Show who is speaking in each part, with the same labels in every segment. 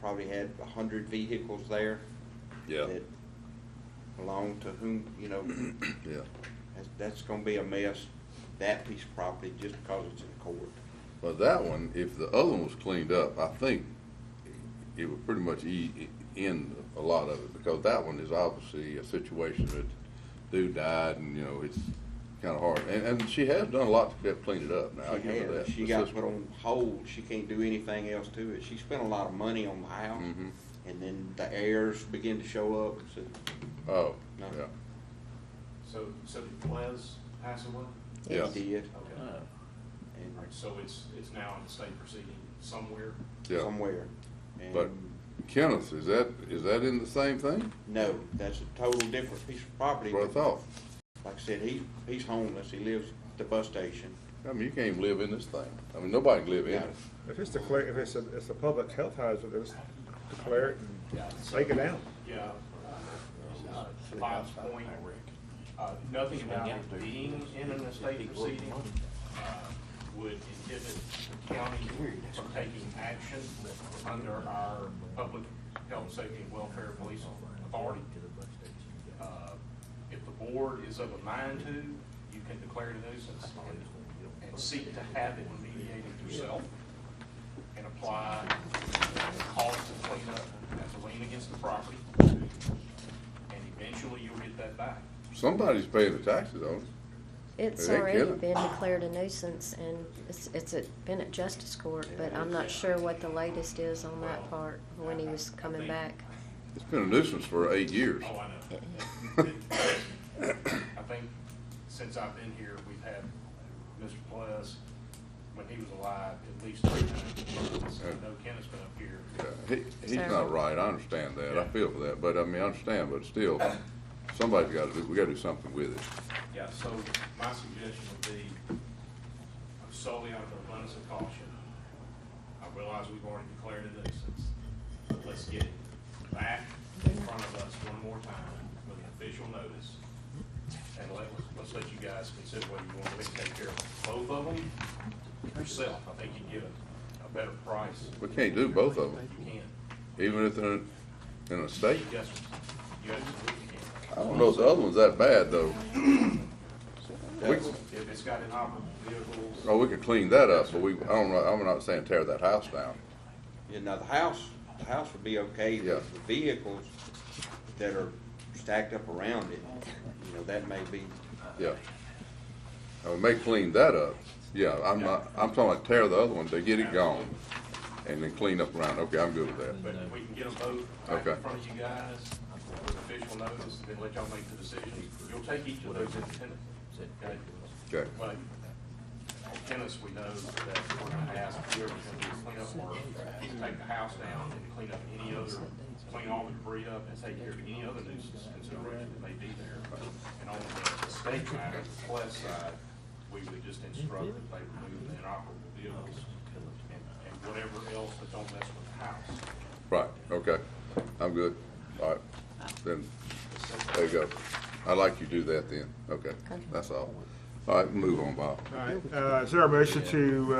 Speaker 1: probably had a hundred vehicles there.
Speaker 2: Yeah.
Speaker 1: That belong to whom, you know,
Speaker 2: Yeah,
Speaker 1: that's, that's gonna be a mess, that piece of property, just because it's in court.
Speaker 2: but that one, if the other one was cleaned up, I think it would pretty much e- end a lot of it, because that one is obviously a situation that dude died, and, you know, it's kinda hard, and, and she has done a lot to get cleaned it up now, I
Speaker 1: She
Speaker 2: give her
Speaker 1: had,
Speaker 2: that.
Speaker 1: She
Speaker 2: It's
Speaker 1: got
Speaker 2: just-
Speaker 1: put on hold, she can't do anything else to it, she spent a lot of money on the house,
Speaker 2: Mhm.
Speaker 1: and then the heirs begin to show up, and said,
Speaker 2: Oh,
Speaker 1: No.
Speaker 2: yeah,
Speaker 3: So, so did Les pass away?
Speaker 2: yeah.
Speaker 1: they did,
Speaker 3: Okay.
Speaker 4: Uh,
Speaker 1: and
Speaker 3: All right, so it's, it's now in the state proceeding somewhere?
Speaker 2: Yeah.
Speaker 1: somewhere.
Speaker 2: But
Speaker 1: And
Speaker 2: Kenneth, is that, is that in the same thing?
Speaker 1: no, that's a total different piece of property.
Speaker 2: That's what I thought.
Speaker 1: Like I said, he, he's homeless, he lives at the bus station.
Speaker 2: I mean, you can't even live in this thing. I mean, nobody can live in it.
Speaker 5: If it's declared, if it's a, it's a public health hazard, just declare it and take it out.
Speaker 3: Yeah. Bob's point, uh, nothing about it being in an estate proceeding, uh, would inhibit the county from taking action under our public health, safety, and welfare police authority. Uh, If the board is of a mind to, you can declare it a nuisance and- and seek to have it mediated yourself and apply the cost of cleanup as a lien against the property. And eventually you'll get that back.
Speaker 2: Somebody's paying the taxes on it.
Speaker 4: It's
Speaker 2: They didn't
Speaker 4: already
Speaker 2: kill it.
Speaker 4: been declared a nuisance and it's, it's at- been at justice court, but I'm not sure what the latest is on that part, when he was coming back.
Speaker 2: It's been a nuisance for eight years.
Speaker 3: Oh, I know. I think since I've been here, we've had Mr. Plus, when he was alive, at least three times. I know Kenneth's been up here.
Speaker 2: Yeah, He, he's
Speaker 4: Sir.
Speaker 2: not right. I understand that. I feel for that. But I mean, I understand, but still, somebody's gotta do, we gotta do something with it.
Speaker 3: Yeah, so my suggestion would be solely out of an abundance of caution. I realize we've already declared a nuisance, but let's get it back in front of us one more time with an official notice. And let, let's let you guys consider whether you want to take care of both of them yourself. I think you can get a, a better price.
Speaker 2: We can't do both of them,
Speaker 3: You can.
Speaker 2: even if they're in a state.
Speaker 3: Yes, you absolutely can.
Speaker 2: I don't know if the other one's that bad though.
Speaker 3: If it's got inoperable vehicles.
Speaker 2: Oh, we could clean that up, but we, I don't know, I'm not saying tear that house down.
Speaker 1: You know, the house, the house would be okay,
Speaker 2: Yeah.
Speaker 1: but the vehicles that are stacked up around it, you know, that may be,
Speaker 2: Yeah. Uh, we may clean that up. Yeah, I'm not, I'm talking like tear the other one, to get it gone, and then clean up around. Okay, I'm good with that.
Speaker 3: But we can get them both back in
Speaker 2: Okay.
Speaker 3: front of you guys with official notice, and then let y'all make the decision. You'll take each of those independently. okay?
Speaker 2: Okay.
Speaker 3: But on tennis, we know that we're gonna ask whoever's gonna do the cleanup work, to take the house down and clean up any other, clean all the debris up and take care of any other nuisance consideration that may be there. And on the state matter, the plus side, we would just instruct that they remove the inoperable vehicles and, and whatever else that don't mess with the house.
Speaker 2: Right, okay, I'm good, all right, then, there you go. I'd like you to do that then, okay,
Speaker 4: Okay.
Speaker 2: that's all. All right, move on, Bob.
Speaker 5: All right, uh, is there a motion to,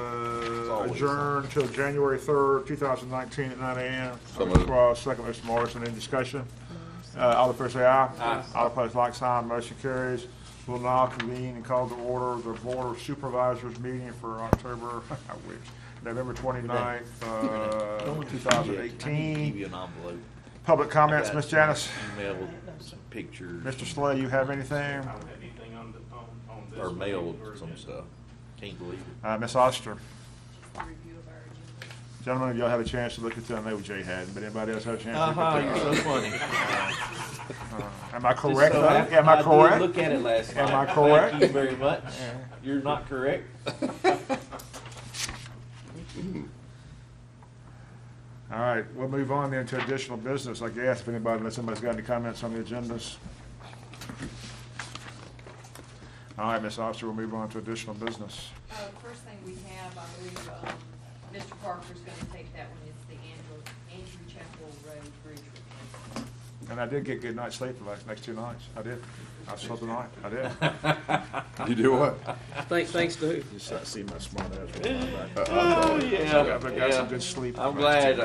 Speaker 5: uh, adjourn till January third, two thousand nineteen at nine AM?
Speaker 2: So moved.
Speaker 5: Cross, uh, second, Mr. Morrison, any discussion? Uh, all in favor say aye. Aye. All opposed, like sign, motion carries. We'll now convene and call to order the Board of Supervisors meeting for October, I wish, November twenty-ninth, uh, two thousand
Speaker 6: Give you
Speaker 5: eighteen.
Speaker 6: an envelope.
Speaker 5: Public comments,
Speaker 6: I got
Speaker 5: Ms. Janice?
Speaker 6: Email with some pictures
Speaker 5: Mr. Slay, you have anything?
Speaker 3: I don't have anything on the, on, on this.
Speaker 6: or mail
Speaker 3: particular
Speaker 6: with some
Speaker 3: agenda.
Speaker 6: stuff. Can't believe it.
Speaker 5: Uh, Ms. Oster?
Speaker 7: just a review of our agenda.
Speaker 5: Gentlemen, if y'all have a chance to look at that, I know Jay had, but anybody else have a chance? to look at
Speaker 6: Uh-huh, you're so funny.
Speaker 5: that? Am I correct?
Speaker 6: So
Speaker 5: though? Am I
Speaker 6: did look
Speaker 5: correct?
Speaker 6: at it last night.
Speaker 5: Am I
Speaker 6: Thank you
Speaker 5: correct?
Speaker 6: very much. You're not correct.
Speaker 5: All right, we'll move on then to additional business, I guess, if anybody, unless anybody's got any comments on the agendas. All right, Ms. Oster, we'll move on to additional business.
Speaker 7: Uh, first thing we have, I believe, um, Mr. Parker's gonna take that one, it's the Andrew, Andrew Chapel Road Bridge replacement.
Speaker 5: And I did get good night's sleep the last, next two nights. I did. I slept the night. I did.
Speaker 2: You do what?
Speaker 8: Thanks, thanks to who?
Speaker 5: Just I see my smart ass. roll my back.
Speaker 2: I- I-
Speaker 6: Oh, yeah,
Speaker 5: I've got some good sleep.
Speaker 6: I'm glad.